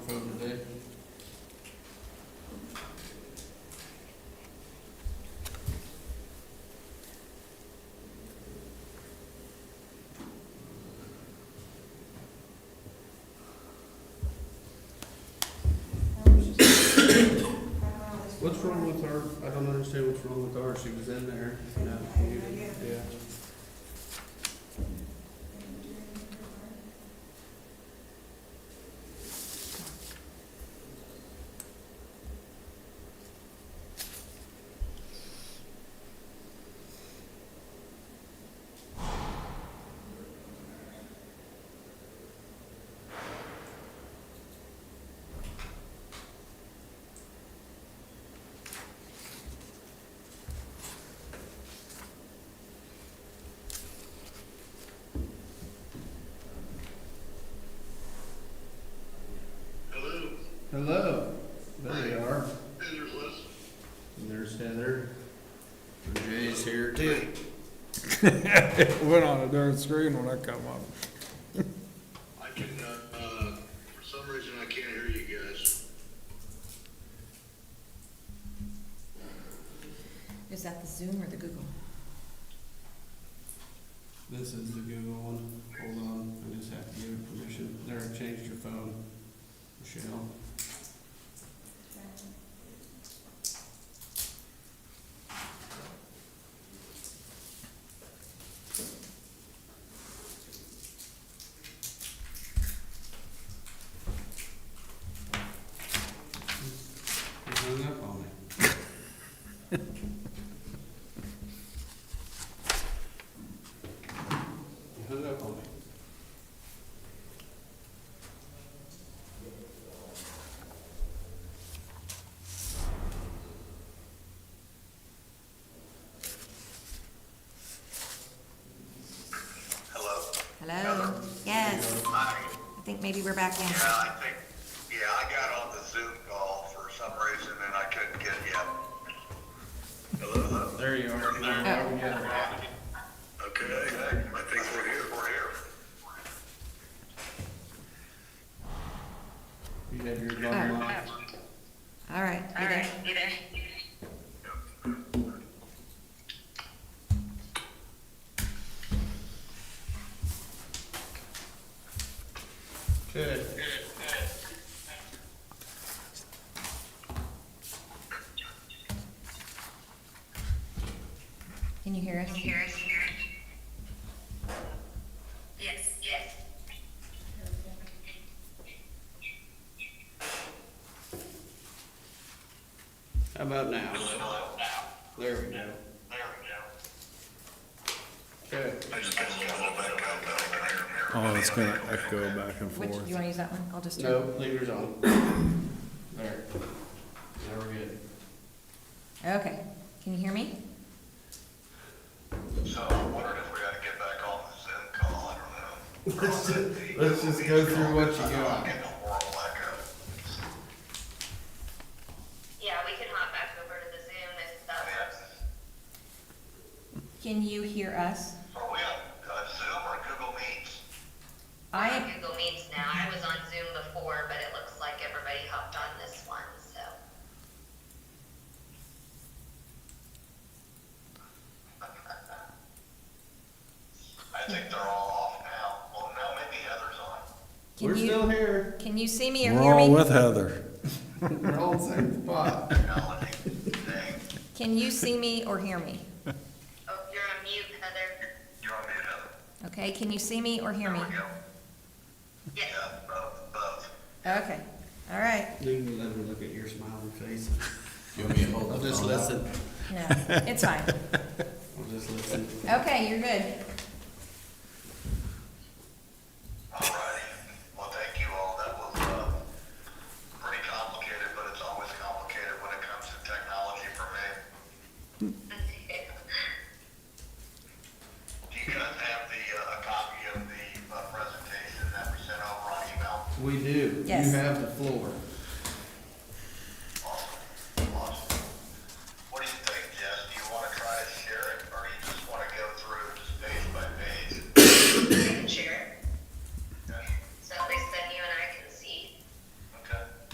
What's wrong with our, I don't understand what's wrong with ours, she was in there, you know, you- yeah. Hello, Hello, there they are, Heather's Liz. and there's Heather. And Jay's here too. It went on a darn screen when I come up. I can, uh, uh, for some reason I can't hear you guys. Is that the Zoom or the Google? This is the Google one, hold on, I just have to give it permission, there, I changed your phone, Michelle. You hung up on me. You hung up on me. Hello. Hello? Yes, Hi. I think maybe we're back in. Yeah, I think, yeah, I got on the Zoom call for some reason and I couldn't get you. Hello. There you are. There we go. Okay, I think we're here, we're here. You have your gun locked. All right, you All there? right, you there? Good. Can you hear us? Can you hear us? Yes, yes. How about now? There we go. There we go. Good. I just got a little back up, but I can hear him here. Oh, it's gonna echo back and Which, forth. you wanna use that one? I'll just. do- No, leave yours on. There. Now we're good. Okay, can you hear me? So I wondered if we ought to get back on the Zoom call, I don't know. Let's ju- let's just go through what you got. I'm getting a horrible echo. Yeah, we can hop back over to the Zoom and stuff. Can you hear us? Are we on uh, Zoom or Google Meets? I I, have Google Meets now. I was on Zoom before, but it looks like everybody hopped on this one, so. I think they're all off now. Well, no, maybe Heather's on. can We're still you, here. can you see me or We're hear all me? with Heather. We're all in the same spot. Technology. Dang. Can you see me or hear me? Oh, you're on mute, Heather. You're on mute, Heather. Okay, can you see me or hear me? There we go. Yes. Yeah, both, both. Okay, all right, You can let me look at your smiling face. I'll just listen. no, it's fine. I'll just listen. Okay, you're good. All righty. Well, thank you all. That was, uh, pretty complicated, but it's always complicated when it comes to technology for me. Do you guys have the, uh, a copy of the, uh, presentation that we sent over on email? We do. Yes. You have the floor.